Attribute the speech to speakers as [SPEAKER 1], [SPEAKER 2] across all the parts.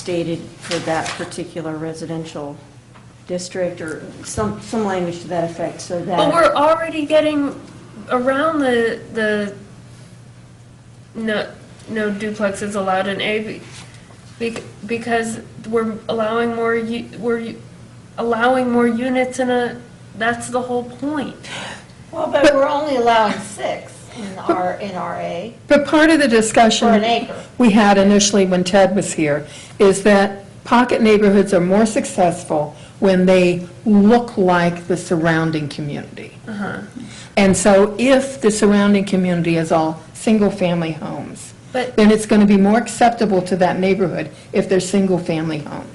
[SPEAKER 1] stated for that particular residential district, or some, some language to that effect, so that.
[SPEAKER 2] But we're already getting around the, the no, no duplexes allowed in A, be- bec- because we're allowing more, u- we're u- allowing more units in a, that's the whole point.
[SPEAKER 3] Well, but we're only allowing six in our, in RA
[SPEAKER 4] But part of the
[SPEAKER 3] for an
[SPEAKER 4] discussion
[SPEAKER 3] acre.
[SPEAKER 4] we had initially when Ted was here is that pocket neighborhoods are more successful when they look like the surrounding community.
[SPEAKER 3] Uh-huh.
[SPEAKER 4] And so if the surrounding community is all single-family homes,
[SPEAKER 2] But-
[SPEAKER 4] then it's going to be more acceptable to that neighborhood if they're single-family homes.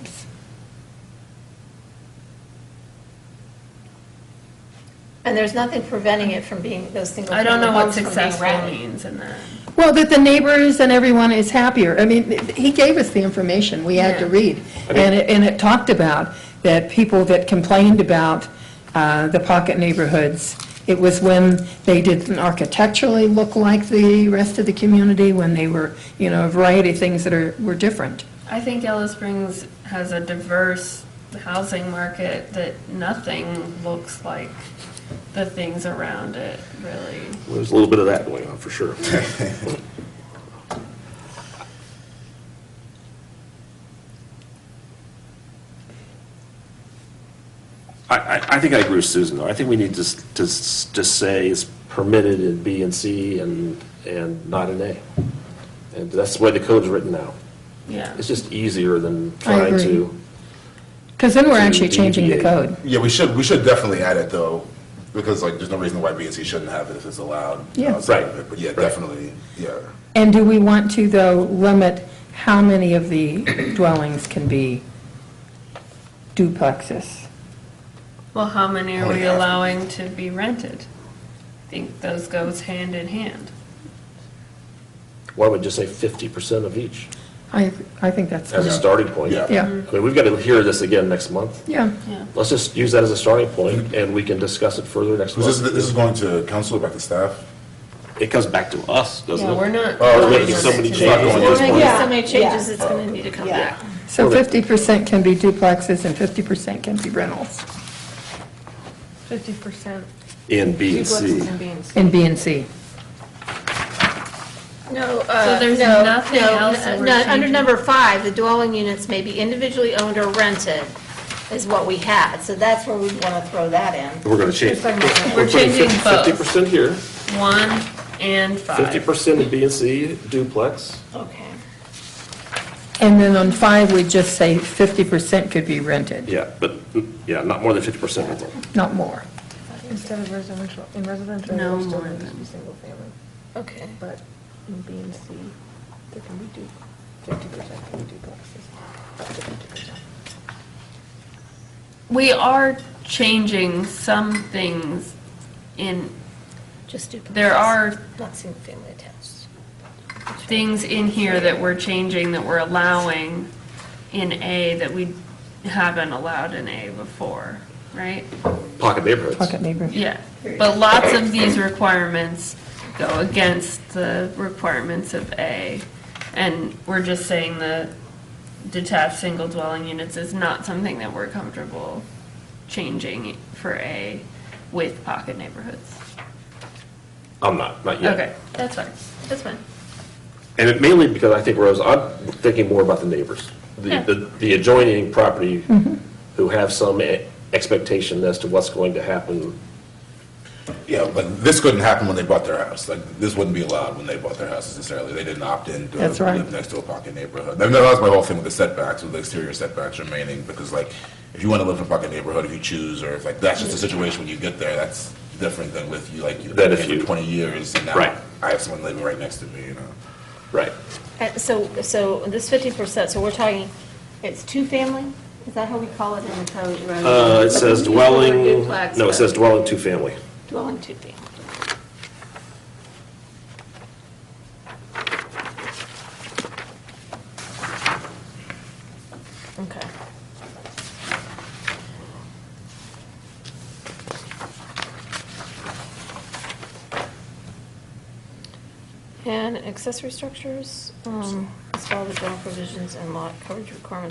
[SPEAKER 3] And there's nothing preventing it from being, those single
[SPEAKER 2] I don't
[SPEAKER 3] family
[SPEAKER 2] know what
[SPEAKER 3] homes from being
[SPEAKER 2] successful
[SPEAKER 3] rented.
[SPEAKER 2] means in that.
[SPEAKER 4] Well, that the neighbors and everyone is happier. I mean, he gave us the information we had to
[SPEAKER 2] Yeah.
[SPEAKER 4] read. And it, and it talked about that people that complained about uh, the pocket neighborhoods, it was when they didn't architecturally look like the rest of the community, when they were, you know, a variety of things that are, were different.
[SPEAKER 2] I think Yellow Springs has a diverse housing market that nothing looks like the things around it, really.
[SPEAKER 5] There's a little bit of that going on, for sure. I, I, I think I agree with Susan, though. I think we need to, s- to, s- to say it's permitted in B and C and, and not in A. And that's the way the code's written now.
[SPEAKER 2] Yeah.
[SPEAKER 5] It's just easier than
[SPEAKER 4] I
[SPEAKER 5] trying
[SPEAKER 4] agree.
[SPEAKER 5] to.
[SPEAKER 4] Because then we're
[SPEAKER 5] To
[SPEAKER 4] actually changing the
[SPEAKER 5] deviate.
[SPEAKER 4] code.
[SPEAKER 6] Yeah, we should, we should definitely add it though, because like, there's no reason why B and C shouldn't have it if it's allowed.
[SPEAKER 4] Yeah.
[SPEAKER 6] outside of
[SPEAKER 5] Right.
[SPEAKER 6] it. But yeah,
[SPEAKER 5] Right.
[SPEAKER 6] definitely, yeah.
[SPEAKER 4] And do we want to, though, limit how many of the dwellings can be duplexes?
[SPEAKER 2] Well, how many are we
[SPEAKER 6] Only half.
[SPEAKER 2] allowing to be rented? I think those goes hand in hand.
[SPEAKER 5] Why would just say 50% of each
[SPEAKER 4] I, I think that's,
[SPEAKER 5] as a starting point?
[SPEAKER 6] Yeah.
[SPEAKER 4] yeah,
[SPEAKER 5] I mean, we've got to hear this again next month.
[SPEAKER 4] yeah.
[SPEAKER 2] Yeah.
[SPEAKER 5] Let's just use that as a starting point, and we can discuss it further next
[SPEAKER 6] So this is,
[SPEAKER 5] month.
[SPEAKER 6] this is going to council, back to staff?
[SPEAKER 5] It comes back to us, doesn't
[SPEAKER 2] Yeah, we're
[SPEAKER 5] it?
[SPEAKER 2] not.
[SPEAKER 6] Oh, we're
[SPEAKER 2] going
[SPEAKER 6] making
[SPEAKER 2] to
[SPEAKER 6] so many
[SPEAKER 2] rented.
[SPEAKER 6] changes.
[SPEAKER 3] We're
[SPEAKER 6] Well,
[SPEAKER 3] going to
[SPEAKER 1] point-
[SPEAKER 3] get so many
[SPEAKER 1] Yeah,
[SPEAKER 3] changes, it's going to need to come back.
[SPEAKER 4] So fifty percent can be duplexes and fifty percent can be rentals
[SPEAKER 2] Fifty percent.
[SPEAKER 5] In B and C.
[SPEAKER 4] in B and C.
[SPEAKER 3] No, uh,
[SPEAKER 2] there's
[SPEAKER 3] no,
[SPEAKER 2] nothing
[SPEAKER 3] no,
[SPEAKER 2] else that we're
[SPEAKER 3] no, under
[SPEAKER 2] changing?
[SPEAKER 3] number five, the dwelling units may be individually owned or rented, is what we had, so that's where we'd want to throw that in.
[SPEAKER 5] We're going to change.
[SPEAKER 3] We're talking
[SPEAKER 2] We're changing
[SPEAKER 5] Fifty
[SPEAKER 2] both,
[SPEAKER 5] percent here,
[SPEAKER 2] one and
[SPEAKER 5] fifty
[SPEAKER 2] five.
[SPEAKER 5] percent in B and C duplex,
[SPEAKER 3] about- Okay.
[SPEAKER 4] And then on five, we just say fifty percent could be rented,
[SPEAKER 5] yeah, but, mm, yeah, not more than fifty percent rental.
[SPEAKER 4] not more.
[SPEAKER 7] Instead of residential, in residential,
[SPEAKER 2] No
[SPEAKER 7] it still
[SPEAKER 2] more
[SPEAKER 7] needs to
[SPEAKER 2] than-
[SPEAKER 7] be single family,
[SPEAKER 3] Okay.
[SPEAKER 7] but in B and C, there can be du, fifty percent can be duplexes. up to 50%.
[SPEAKER 2] We are changing some things in,
[SPEAKER 3] Just duplexes.
[SPEAKER 2] there are
[SPEAKER 3] Not single family attached.
[SPEAKER 2] things in here that we're changing, that we're allowing in A that we haven't allowed in A before, right?
[SPEAKER 5] Pocket neighborhoods.
[SPEAKER 4] Pocket neighborhood.
[SPEAKER 2] Yeah, but lots of these requirements go against the requirements of A. And we're just saying the detached single dwelling units is not something that we're comfortable changing for A with pocket neighborhoods.
[SPEAKER 5] I'm not, not yet.
[SPEAKER 2] Okay, that's fine, that's fine.
[SPEAKER 5] And it mainly because I think, Rose, I'm thinking more about the neighbors, the,
[SPEAKER 2] Yeah.
[SPEAKER 5] the- the adjoining property who have some e- expectation as to what's going to happen.
[SPEAKER 6] Yeah, but this couldn't happen when they bought their house. Like, this wouldn't be allowed when they bought their house necessarily. They didn't opt in to
[SPEAKER 4] That's right.
[SPEAKER 6] live next to a pocket neighborhood. And that was my whole thing with the setbacks, with the exterior setbacks remaining, because like, if you want to live in a pocket neighborhood, if you choose, or if like, that's just the situation when you get there, that's different than with you, like, you've
[SPEAKER 5] Than
[SPEAKER 6] been
[SPEAKER 5] if
[SPEAKER 6] here
[SPEAKER 5] you-
[SPEAKER 6] for twenty years, and
[SPEAKER 5] Right.
[SPEAKER 6] now I have someone living right next to me, you know?
[SPEAKER 5] Right.
[SPEAKER 3] Uh, So, so this fifty percent, so we're talking, it's two-family? Is that how we call it in the code, right?
[SPEAKER 5] Uh, it says dwelling,
[SPEAKER 3] Duplex,
[SPEAKER 5] no, it
[SPEAKER 3] but
[SPEAKER 5] says dwelling two-family.
[SPEAKER 3] Dwelling two-family. Okay. And accessory structures, um, it's all the general provisions and lot coverage requirements